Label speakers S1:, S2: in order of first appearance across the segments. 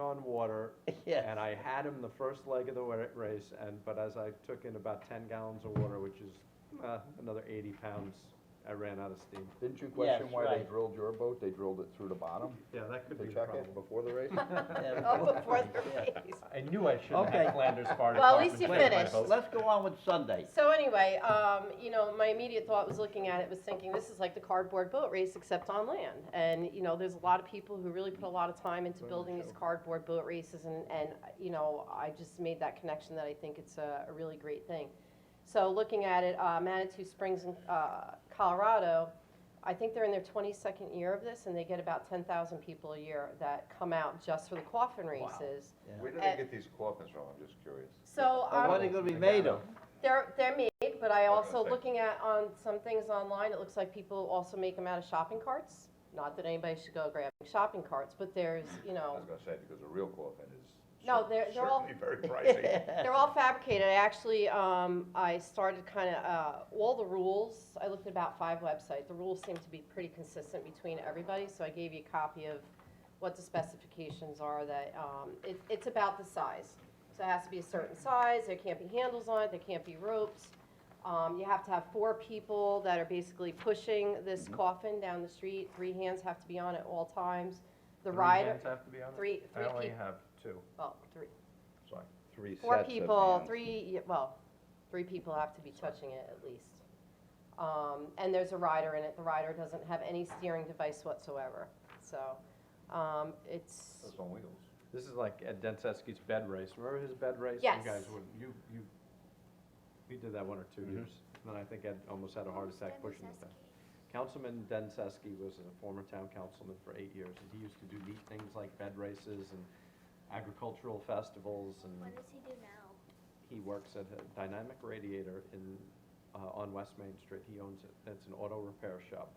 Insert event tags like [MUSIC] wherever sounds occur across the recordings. S1: on water,
S2: [LAUGHS] Yes.
S1: and I had him the first leg of the wa- race, and, but as I took in about ten gallons of water, which is, uh, another eighty pounds, I ran out of steam.
S3: Didn't you question
S2: Yes,
S3: why they
S2: right.
S3: drilled your boat? They drilled it through the bottom
S1: Yeah, that could
S3: to
S1: be a
S3: check
S1: problem.
S3: it before the
S1: [LAUGHS]
S3: race?
S2: Yeah.
S4: [LAUGHS] Oh, before the
S2: Yeah.
S4: race.
S1: I knew I should have
S2: Okay.
S1: had Flanders Fire
S4: Well, at least
S1: Department
S4: you
S1: clean my
S4: finished.
S1: boat.
S2: Let's go on with
S3: [LAUGHS]
S2: Sunday.
S4: So anyway, um, you know, my immediate thought was looking at it was thinking this is like the cardboard boat race except on land. And you know, there's a lot of people who really put a lot of time into building these cardboard boat races, and and you know, I just made that connection that I think it's a, a really great thing. So looking at it, uh, Manitou Springs in uh, Colorado, I think they're in their 22nd year of this, and they get about 10,000 people a year that come out just for the coffin races.
S5: Where do
S4: Uh,
S5: they get these coffins from? I'm just curious.
S4: So
S2: Well,
S4: um,
S2: What are they gonna be made of?
S4: They're, they're made, but I
S5: I was
S4: also,
S5: gonna say.
S4: looking at on some things online, it looks like people also make them out of shopping carts. Not that anybody should go grabbing shopping carts, but there's, you
S5: I
S4: know,
S5: was gonna say, because a real coffin is
S4: No,
S5: cer-
S4: they're- they're all-
S5: certainly [LAUGHS] very
S4: [LAUGHS]
S5: pricey.
S4: they're all fabricated. I actually, um, I started kind of, uh, all the rules, I looked at about five websites. The rules seem to be pretty consistent between everybody, so I gave you a copy of what the specifications are that, um, it, it's about the size. So it has to be a certain size, there can't be handles on it, there can't be ropes. Um, you have to have four people that are basically pushing this coffin down the street, three hands have to be on it all times. The rider,
S1: have to be on
S4: three, three people,
S1: have two.
S4: well, three,
S1: Sorry.
S3: Three
S4: Four
S3: sets of
S4: people,
S3: hands.
S4: three, yeah, well, three people have to be touching it at least. Um, and there's a rider in it, the rider doesn't have any steering device whatsoever, so, um, it's,
S5: That's on wheels.
S1: This is like Ed Denseski's bed race. Remember his bed race?
S4: Yes.
S1: You guys would, you, you, we did that one or
S2: Mm-hmm.
S1: two years. And then I think Ed almost had a heart attack pushing it back. Councilman Denseski was a former town councilman for eight years, and he used to do neat things like bed races and agricultural festivals, and
S6: What does he do now?
S1: he works at a Dynamic Radiator in, uh, on West Main Street. He owns it. It's an auto repair shop.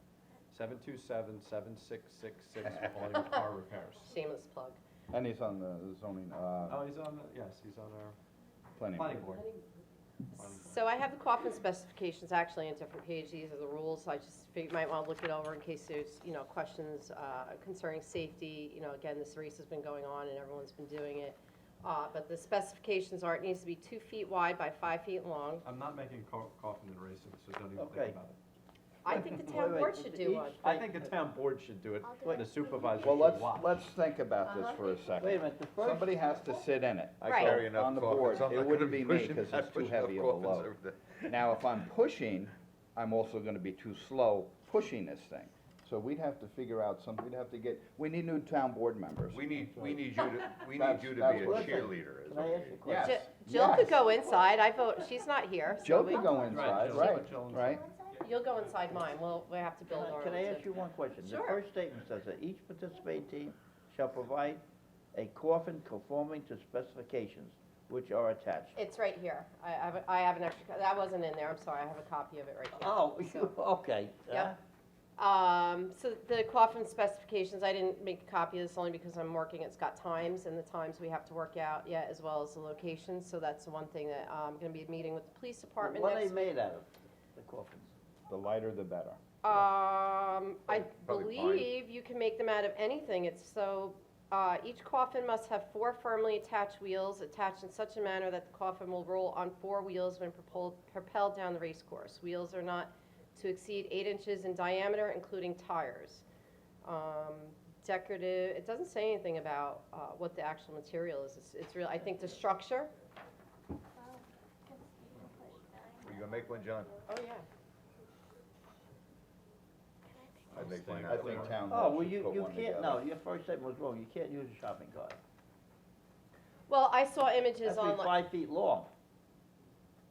S1: Seven two seven, seven six six six for all your car repairs.
S4: shameless plug.
S3: And he's on the zoning, uh,
S1: Oh, he's on, the- yes, he's on our
S3: planning.
S1: planning board.
S4: So I have the coffin specifications actually in a different page, these are the rules, I just figured you might wanna look it over in case there's, you know, questions, uh, concerning safety, you know, again, this race has been going on and everyone's been doing it. Uh, but the specifications are, it needs to be two feet wide by five feet long,
S1: I'm not making co- coffin and racing, so don't even
S2: Okay.
S1: think about it.
S4: I think the
S2: Wait,
S4: town
S2: wait,
S4: board should do
S2: each-
S4: one.
S1: I think the town board should do it,
S6: I'll do
S1: and
S6: it.
S1: the supervisor
S3: Well, let's,
S1: should watch.
S3: let's think about
S4: Uh-huh.
S3: this for a
S2: [LAUGHS]
S3: second.
S2: Wait a minute, the first.
S3: Somebody has to sit in it.
S4: I Right.
S5: Carry enough
S3: Oh, On the
S5: coffins.
S3: board,
S5: I'm not
S3: it
S5: gonna
S3: wouldn't be me,
S5: pushing-
S3: cause
S5: not
S3: it's too
S5: pushing
S3: heavy of a
S5: enough coffins
S3: load.
S5: every day.
S3: Now, if I'm pushing, I'm also gonna be too slow pushing this thing. So we'd have to figure out some, we'd have to get, we need new town board members.
S5: We need, we need you to, we need
S3: That's-
S5: you to be
S3: that's
S5: a
S3: what I'm saying.
S5: cheerleader. is
S2: Can I
S5: what we
S2: ask you a
S5: need.
S2: question?
S4: Jill-
S3: Yes,
S4: Jill
S3: yes.
S4: could go inside, I vote, she's not here, so
S3: Joe
S4: we-
S3: could go
S1: Right,
S3: inside,
S1: Joe.
S3: right,
S1: Joe inside.
S3: right?
S4: you'll go inside mine, we'll, we have to
S2: Can
S4: build
S2: I-
S4: our.
S2: Can I
S4: own
S2: ask you one question?
S4: Sure.
S2: The first statement says that each participating team shall provide a coffin conforming to specifications which are attached.
S4: It's right here, I, I have, a- I have an extra, co- that wasn't in there, I'm sorry, I have a copy of it right here.
S2: [LAUGHS] Oh, you,
S4: So-
S2: okay. Uh,
S4: Yep. Um, so the coffin specifications, I didn't make a copy of this only because I'm working, it's got times and the times we have to work out yet, as well as the locations, so that's the one thing that, uh, I'm gonna be meeting with the police department
S2: What are
S4: next.
S2: they made out of, the coffins?
S3: The lighter the better.
S4: Um, I
S5: Probably pine.
S4: believe you can make them out of anything, it's so, uh, each coffin must have four firmly attached wheels attached in such a manner that the coffin will roll on four wheels when propelled, propelled down the race course. Wheels are not to exceed eight inches in diameter, including tires. Um, decorative, it doesn't say anything about, uh, what the actual material is, it's, it's real, I think the structure,
S6: Well, 'cause you can push back.
S5: Are you gonna make one, John?
S4: oh, yeah.
S5: I'd make mine.
S3: I think town
S2: Oh,
S3: hall
S2: well,
S3: should
S2: you,
S3: put
S2: you
S3: one
S2: can't,
S3: together.
S2: no, your first statement was wrong, you can't use a shopping cart.
S4: Well, I saw
S2: It has
S4: images
S2: to be
S4: online,
S2: five feet long.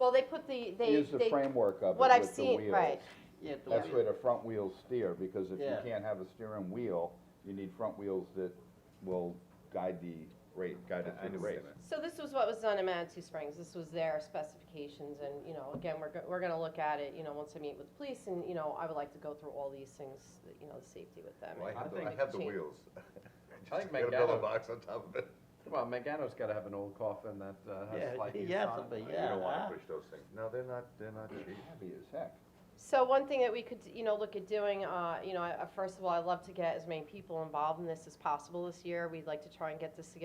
S4: well, they put the, they, they.
S3: Use the framework of it
S4: what I've
S3: with the
S4: seen-
S3: wheels.
S4: right.
S2: Yeah, the
S3: That's
S2: wheel.
S3: where the front wheels steer, because if you
S2: Yeah.
S3: can't have a steering wheel, you need front wheels that will guide the rate, guide it
S5: I
S3: through
S5: knew
S3: the
S5: what you
S3: race.
S5: meant.
S4: So this was what was done in Manitou Springs, this was their specifications, and, you know, again, we're, go- we're gonna look at it, you know, once I meet with the police, and, you know, I would like to go through all these things, you know, the safety with them.
S5: Well, I
S4: and
S5: have the,
S4: make
S5: I
S4: a
S5: have the
S4: change.
S5: wheels. [LAUGHS]
S1: I think
S5: Got a pillow
S1: Mangano-
S5: box on top of it.
S1: Well, Megano's gotta have an old coffin that uh,
S2: Yeah,
S1: has like.
S2: he
S1: eaves
S2: has
S1: on
S2: to
S1: it.
S2: be,
S5: You
S2: yeah,
S5: don't wanna
S2: huh?
S5: push those things. No, they're not, they're not cheap.
S3: Heavy as heck.
S4: So one thing that we could, you know, look at doing, uh, you know, I- I- first of all, I'd love to get as many people involved in this as possible this year, we'd like to try and get this together